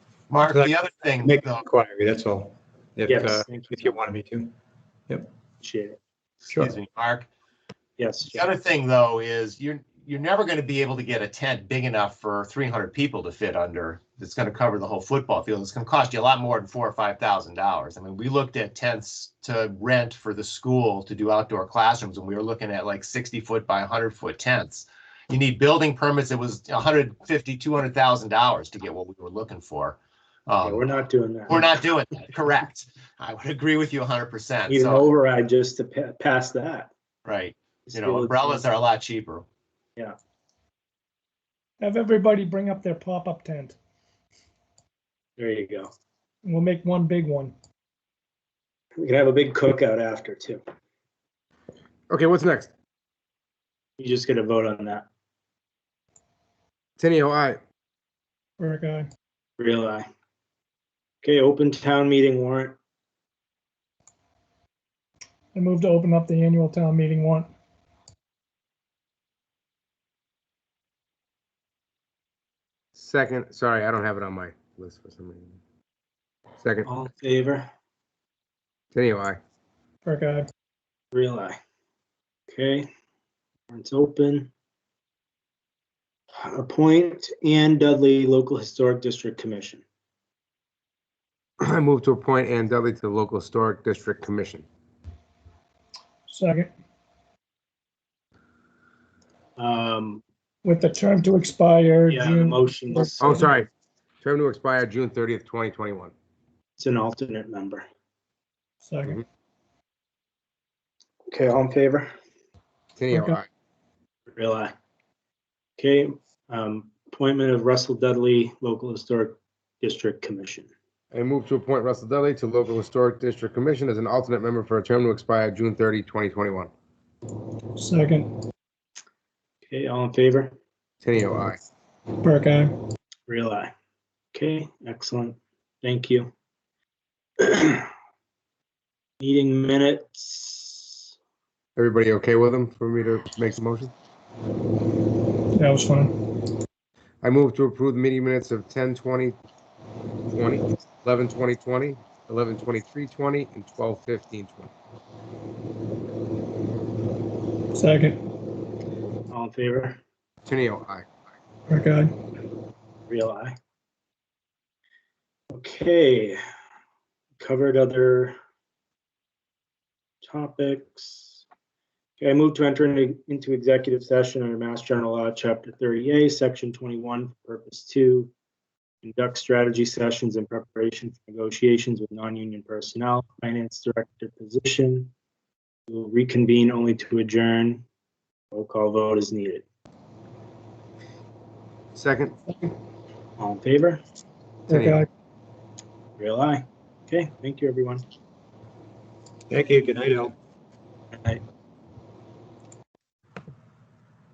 Mark, Like- the other thing, Make an though, inquiry, that's all. If, Yes, uh, thank you. if you wanted me to. Appreciate it. Sure. excuse me, Mark, Yes. the other thing, though, is you're, you're never going to be able to get a tent big enough for three hundred people to fit under. It's going to cover the whole football field. It's going to cost you a lot more than four or five thousand dollars. I mean, we looked at tents to rent for the school to do outdoor classrooms, and we were looking at like sixty foot by hundred foot tents. You need building permits. It was a hundred fifty, two hundred thousand dollars to get what we were looking for. Yeah, Um, We're not doing that. We're not doing that, correct. I would agree with you hundred percent, Need an so, override just to pa- pass that. right, you Still, know, umbrellas are a lot cheaper. Have everybody bring up their pop-up tent. There you go. and We'll make one big one. We can have a big cookout after too. Okay, what's next? You just gotta vote on that. Tenio, aye. Or a guy. Real eye. Okay, open town meeting warrant. I move to open up the annual town meeting warrant. Second, sorry, I don't have it on my list for some reason. Second, oh, All in favor? Tenio, aye. Or a guy. Real eye. Okay, warrant's open. Appoint Ann Dudley Local Historic District Commission. I move to appoint Ann Dudley to the local historic district commission. Second, Um, with the term to expire yeah, the June. motion is, Oh, sorry. Term to expire June thirtieth, twenty twenty-one. it's an alternate member. Second, Okay, all in favor? Tenio, Okay. aye. Real eye. Okay, um, appointment of Russell Dudley Local Historic District Commission. I move to appoint Russell Dudley to local historic district commission as an alternate member for a term to expire June 30, 2021. second, Okay, all in favor? Tenio, aye. or a guy. Real eye. Okay, excellent. Thank you. Meeting minutes. Everybody okay with them for me to make the motion? That was fun. I move to approve the meeting minutes of 10, 20, 20, 11, 20, 20, 11, 23, 20, and 12, 15, 20. Second, All in favor? Tenio, aye. or a guy. Real eye. Okay. Covered other topics. Okay, I move to enter into- into executive session under Mass General Law, Chapter 38, Section 21, Purpose 2. Conduct strategy sessions in preparation for negotiations with non-union personnel, finance director position. We will reconvene only to adjourn. Roll call vote is needed. Second? All in favor? Or a Tenio. guy. Real eye. Okay, thank you, everyone. Thank you. Good night, Al. Aye.